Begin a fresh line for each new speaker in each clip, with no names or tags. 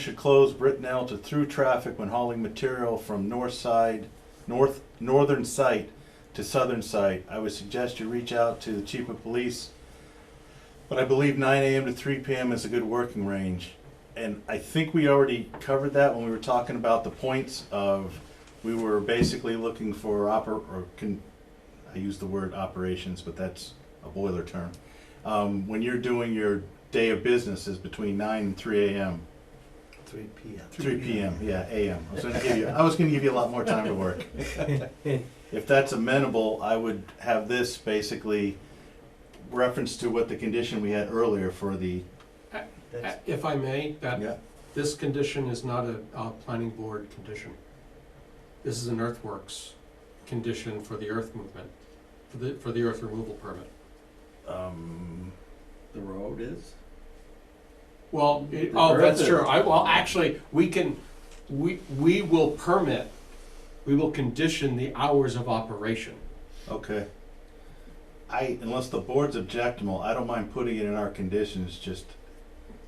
should close Brittenell to through traffic when hauling material from north side, north, northern site to southern site. I would suggest you reach out to the chief of police. But I believe nine AM to three PM is a good working range. And I think we already covered that when we were talking about the points of, we were basically looking for oper, or can, I use the word operations, but that's a boiler term. Um, when you're doing your day of business is between nine and three AM.
Three P M.
Three PM, yeah, AM. I was gonna give you, I was gonna give you a lot more time to work. If that's amenable, I would have this basically reference to what the condition we had earlier for the,
That's,
If I may, that,
yeah,
this condition is not a, uh planning board condition. This is an earthworks condition for the earth movement, for the, for the earth removal permit.
um,
The road is?
Well, it-
The
oh, that's
earth
true,
is-
I, well, actually, we can, we, we will permit, we will condition the hours of operation.
okay. I, unless the board's objectable, I don't mind putting it in our conditions, just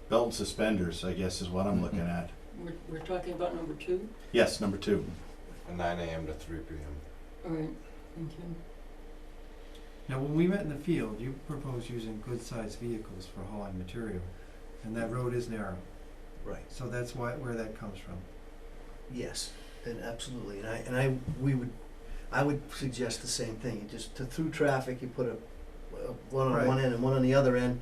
belt and suspenders, I guess, is what I'm
Mm-hmm.
looking at.
We're, we're talking about number two?
Yes, number two.
Nine AM to three PM.
All right, thank you.
now, when we met in the field, you proposed using good-sized vehicles for hauling material, and that road is narrow. Right. So that's why, where that comes from. Yes, and absolutely, and I, and I, we would, I would suggest the same thing, you just, to through traffic, you put a, a- one on one end and one on the other end,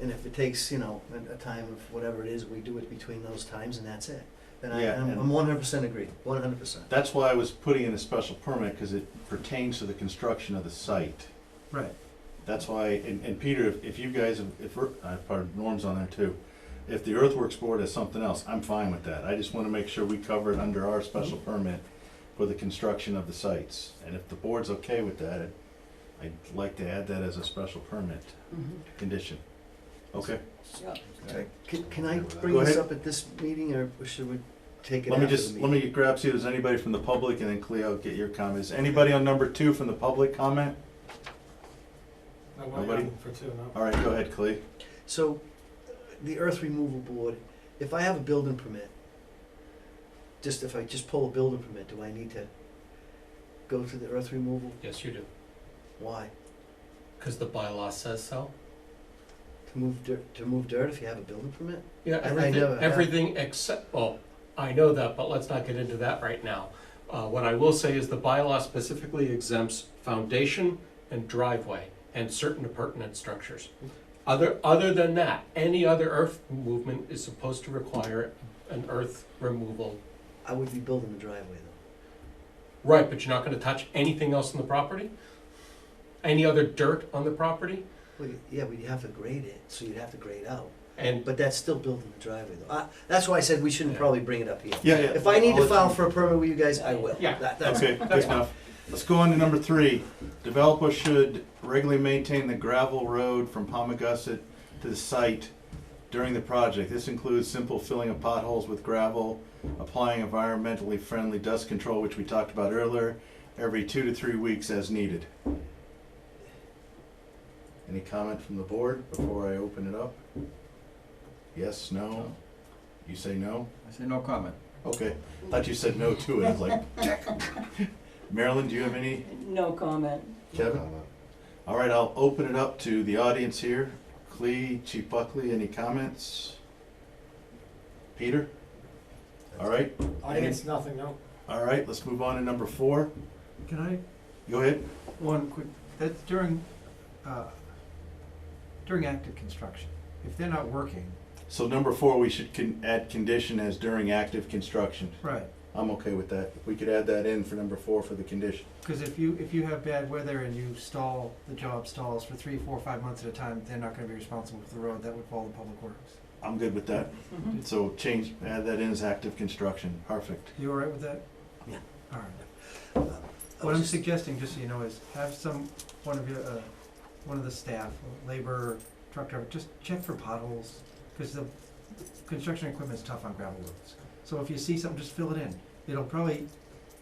and if it takes, you know, a, a time of whatever it is, we do it between those times, and that's it. And I,
Yeah,
I'm,
and-
I'm one hundred percent agree, one hundred percent.
That's why I was putting in a special permit, because it pertains to the construction of the site.
Right.
That's why, and, and Peter, if, if you guys, have- if, we're- uh, pardon, Norm's on there too. If the earthworks board has something else, I'm fine with that. I just wanna make sure we cover it under our special
Mm-hmm.
permit for the construction of the sites. And if the board's okay with that, I'd like to add that as a special permit
Mhm.
condition. Okay,
Yeah.
Can, can I bring
Go
this
ahead.
up at this meeting, or should we take it
let
after
me
the
just,
meeting?
let me grab, see if there's anybody from the public, and then Cleo, get your comments. Anybody on number two from the public comment? Nobody?
for two, no.
All right, go ahead, Cleo.
So, the earth removal board, if I have a building permit, just if I just pull a building permit, do I need to go to the earth removal?
Yes, you do,
Why?
because the bylaw says so.
To move dirt, to move dirt if you have a building permit?
Yeah,
I- I
everything,
know, yeah.
everything except, well, I know that, but let's not get into that right now. Uh, what I will say is the bylaw specifically exempts foundation and driveway and certain appurtenant structures. Other, other than that, any other earth movement is supposed to require an earth removal.
I would be building the driveway though.
Right, but you're not gonna touch anything else on the property? Any other dirt on the property?
Well, you- yeah, but you have to grade it, so you'd have to grade out,
And,
but that's still building the driveway though. I, that's why I said we shouldn't
Yeah.
probably bring it up here.
Yeah, yeah.
If I need to
I'll-
file for a permit with you guys, I will.
Yeah.
That- that's-
Okay, good enough. Let's go on to number three. Developer should regularly maintain the gravel road from Palmagussit to the site during the project. This includes simple filling of potholes with gravel, applying environmentally friendly dust control, which we talked about earlier, every two to three weeks as needed. Any comment from the board before I open it up? Yes, no? You say no?
I say no comment.
Okay, thought you said no to it, I was like, check. Marilyn, do you have any?
No comment.
Kevin? All right, I'll open it up to the audience here. Clee, Chief Buckley, any comments? Peter? All right, Audience,
nothing, no?
all right, let's move on to number four.
Can I
Go ahead.
One quick, that's during, uh, during active construction. If they're not working.
So number four, we should con- add condition as during active construction.
Right,
I'm okay with that. We could add that in for number four for the condition.
because if you, if you have bad weather and you stall, the job stalls for three, four, five months at a time, they're not gonna be responsible for the road, that would fall to Public Works.
I'm good with that.
Mhm.
So change, add that in as active construction. Perfect.
You all right with that?
Yeah.
All right. What I'm suggesting, just so you know, is have some, one of your, uh, one of the staff, labor, truck driver, just check for potholes, because the construction equipment's tough on gravel roads. So if you see something, just fill it in. It'll probably,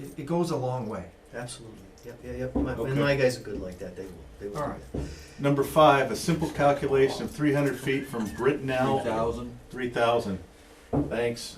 it, it goes a long way. Absolutely. Yep, yeah, yep.
and Okay. my
guys are good like that. They will, they will. All right.
Number five, a simple calculation of three hundred feet from Brittenell.
Three thousand?
Three thousand. Thanks.